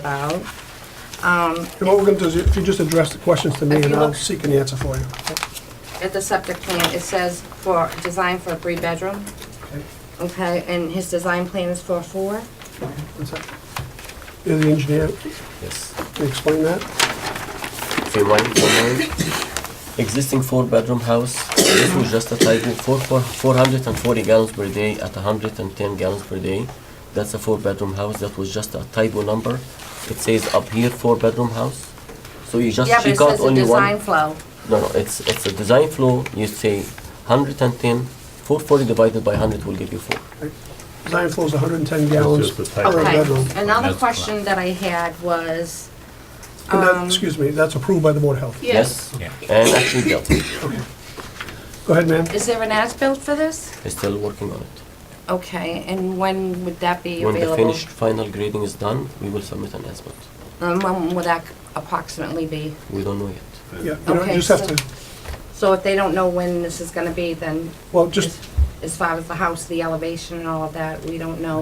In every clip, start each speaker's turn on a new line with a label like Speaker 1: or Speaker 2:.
Speaker 1: about. Um,
Speaker 2: And what we're gonna do is, if you just address the questions to me,
Speaker 1: If you
Speaker 2: and I'll
Speaker 1: look-
Speaker 2: seek an answer for you.
Speaker 1: At the septic plan, it says for, design for a three-bedroom, okay, and his design plan is for four.
Speaker 2: That's it. You're the engineer,
Speaker 3: Yes.
Speaker 2: can you explain that?
Speaker 3: Okay, my name. Existing four-bedroom house. This was just a typo. Four, four, 440 gallons per day at 110 gallons per day. That's a four-bedroom house. That was just a typo number. It says up here four-bedroom house. So you just
Speaker 1: Yeah, but
Speaker 3: she
Speaker 1: it
Speaker 3: got
Speaker 1: says a
Speaker 3: only
Speaker 1: design
Speaker 3: one.
Speaker 1: flow.
Speaker 3: No, no. It's it's a design flow. You say 110. 440 divided by 100 will give you four.
Speaker 2: Design flow is 110 gallons
Speaker 4: just the
Speaker 2: per
Speaker 4: type.
Speaker 1: Okay,
Speaker 2: bedroom.
Speaker 1: another
Speaker 4: That's
Speaker 1: question that I had was,
Speaker 2: And that,
Speaker 1: Um,
Speaker 2: excuse me, that's approved by the Board of Health.
Speaker 3: Yes. And actually built.
Speaker 2: Go ahead, ma'am.
Speaker 1: is there an as-built for this?
Speaker 3: They're still working on it.
Speaker 1: Okay, and when would that be
Speaker 3: When the
Speaker 1: available?
Speaker 3: finished final grading is done, we will submit an estimate.
Speaker 1: And Um, when would that approximately be?
Speaker 3: We don't know yet.
Speaker 2: Yeah, you know,
Speaker 1: Okay,
Speaker 2: you just have
Speaker 1: so-
Speaker 2: to,
Speaker 1: So if they don't know when this is gonna be, then
Speaker 2: well, just,
Speaker 1: as far as the house, the elevation and all of that, we don't know.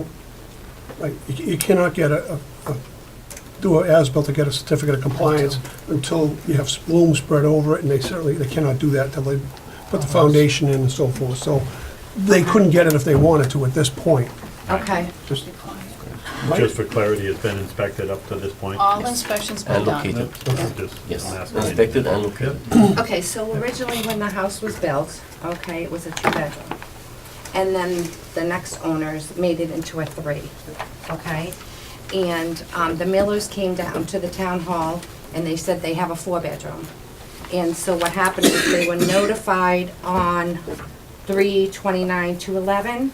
Speaker 2: like, you you cannot get a, a- a- do an as-built to get a certificate of compliance until you have loom spread over it, and they certainly, they cannot do that until they
Speaker 4: Uh-huh.
Speaker 2: put the foundation in and so forth. So they couldn't get it if they wanted to at this point.
Speaker 1: Okay,
Speaker 2: Just
Speaker 4: Just for clarity, it's been inspected up to this point?
Speaker 5: All inspections been
Speaker 3: And
Speaker 5: done.
Speaker 3: located,
Speaker 4: Just
Speaker 3: yes.
Speaker 4: ask me.
Speaker 3: Inspected and located.
Speaker 1: okay, so originally when the house was built, okay, it was a two-bedroom. And then the next owners made it into a three, okay? And um, the Millers came down to the town hall and they said they have a four-bedroom. And so what happened is they were notified on three twenty-nine to eleven.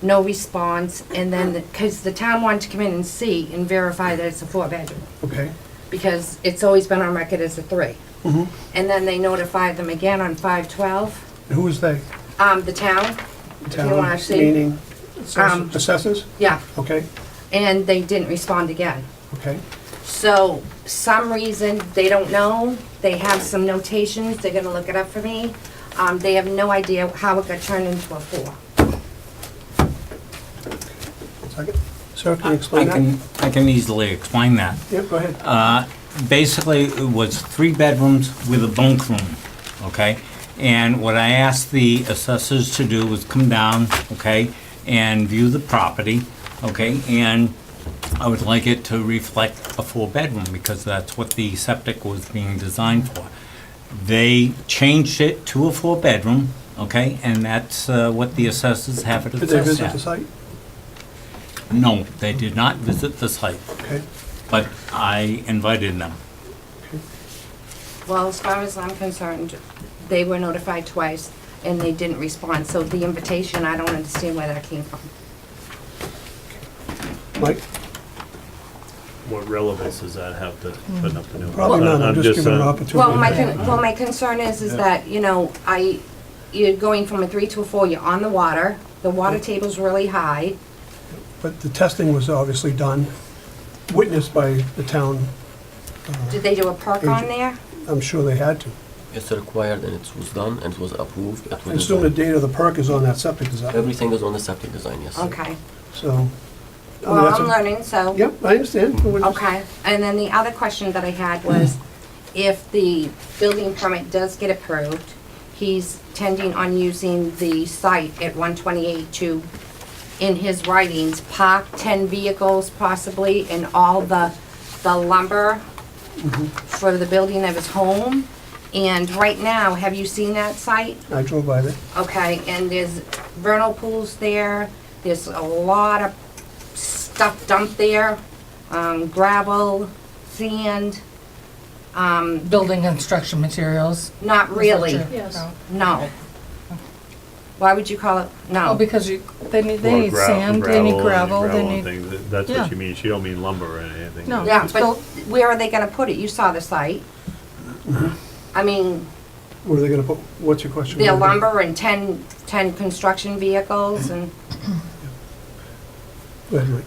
Speaker 1: No response, and then, because the town wanted to come in and see and verify that it's a four-bedroom.
Speaker 2: Okay,
Speaker 1: because it's always been on record as a three. And then they notified them again on five twelve,
Speaker 2: and who is they?
Speaker 1: um, the town, if you
Speaker 2: Town,
Speaker 1: wanna see.
Speaker 2: Meaning assess-
Speaker 1: Um,
Speaker 2: assessors?
Speaker 1: Yeah,
Speaker 2: Okay,
Speaker 1: and they didn't respond again.
Speaker 2: okay.
Speaker 1: So, some reason, they don't know, they have some notations, they're gonna look it up for me. Um, they have no idea how it got turned into a four.
Speaker 2: Second. Sir, can you
Speaker 6: I
Speaker 2: explain that?
Speaker 6: can, I can easily explain that.
Speaker 2: Yeah, go ahead.
Speaker 6: Basically, it was three bedrooms with a bunk room, okay? And what I asked the assessors to do was come down, okay, and view the property, okay? And I would like it to reflect a four-bedroom, because that's what the septic was being designed for. They changed it to a four-bedroom, okay, and that's uh, what the assessors have it
Speaker 2: Did they
Speaker 6: assessed
Speaker 2: visit the
Speaker 6: at.
Speaker 2: site?
Speaker 6: No, they did not visit the site.
Speaker 2: Okay.
Speaker 6: but I invited them.
Speaker 1: Well, as far as I'm concerned, they were notified twice and they didn't respond, so the invitation, I don't understand where that came from.
Speaker 2: Mike?
Speaker 4: What relevance does that have to putting up the new?
Speaker 2: Probably
Speaker 4: house?
Speaker 2: not, I'm just
Speaker 4: uh,
Speaker 2: giving an opportunity.
Speaker 1: Well, my, con- well, my concern is, is that, you know, I, you're going from a three to a four, you're on the water, the water table's really high.
Speaker 2: But the testing was obviously done, witnessed by the town, Uh,
Speaker 1: Did they do a perk on there?
Speaker 2: I'm sure they had to.
Speaker 3: It's required and it was done and it was approved. It
Speaker 2: And
Speaker 3: was
Speaker 2: still the
Speaker 3: designed.
Speaker 2: date of the perk is on that septic design,
Speaker 3: Everything is on the septic design, yes.
Speaker 1: Okay.
Speaker 2: so. I mean,
Speaker 1: Well,
Speaker 2: that's
Speaker 1: I'm
Speaker 2: a-
Speaker 1: learning, so.
Speaker 2: Yep, I understand. We're just-
Speaker 1: Okay, and then the other question that I had was, if the building permit does get approved, he's tending on using the site at one twenty-eight to, in his writings, park ten vehicles possibly, and all the, the lumber for the building of his home. And right now, have you seen that site?
Speaker 2: I drove by there.
Speaker 1: Okay, and there's vernal pools there, there's a lot of stuff dumped there, um, gravel, sand,
Speaker 7: building construction materials?
Speaker 1: not really,
Speaker 5: Yes.
Speaker 1: no. Why would you call it,
Speaker 7: Oh,
Speaker 1: no,
Speaker 7: because you, they need,
Speaker 4: Or
Speaker 7: they need
Speaker 4: gra-
Speaker 7: sand, they need gravel,
Speaker 4: and
Speaker 7: they
Speaker 4: and
Speaker 7: need,
Speaker 4: things. That- That's
Speaker 7: yeah.
Speaker 4: what you mean, she don't mean lumber or anything.
Speaker 7: No.
Speaker 1: yeah,
Speaker 7: It's
Speaker 1: but
Speaker 7: built-
Speaker 1: where are they gonna put it, you saw the site? I mean,
Speaker 2: What are they gonna put, what's your question?
Speaker 1: the lumber and ten, ten construction vehicles and,
Speaker 2: Go ahead, Mike.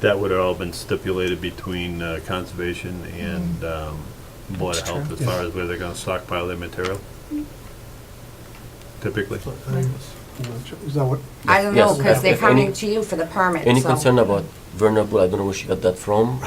Speaker 4: That would have all been stipulated between uh, conservation and um, Board of
Speaker 7: Mm. That's
Speaker 4: Health
Speaker 7: true.
Speaker 4: as far as where they're gonna stockpile their material? Typically.
Speaker 2: Is that what?
Speaker 1: I don't know,
Speaker 3: Yes,
Speaker 1: because
Speaker 3: if-
Speaker 1: they're
Speaker 3: if any-
Speaker 1: coming to you for the permit,
Speaker 3: Any
Speaker 1: so-
Speaker 3: concern about vulnerable, I don't know where she got that from,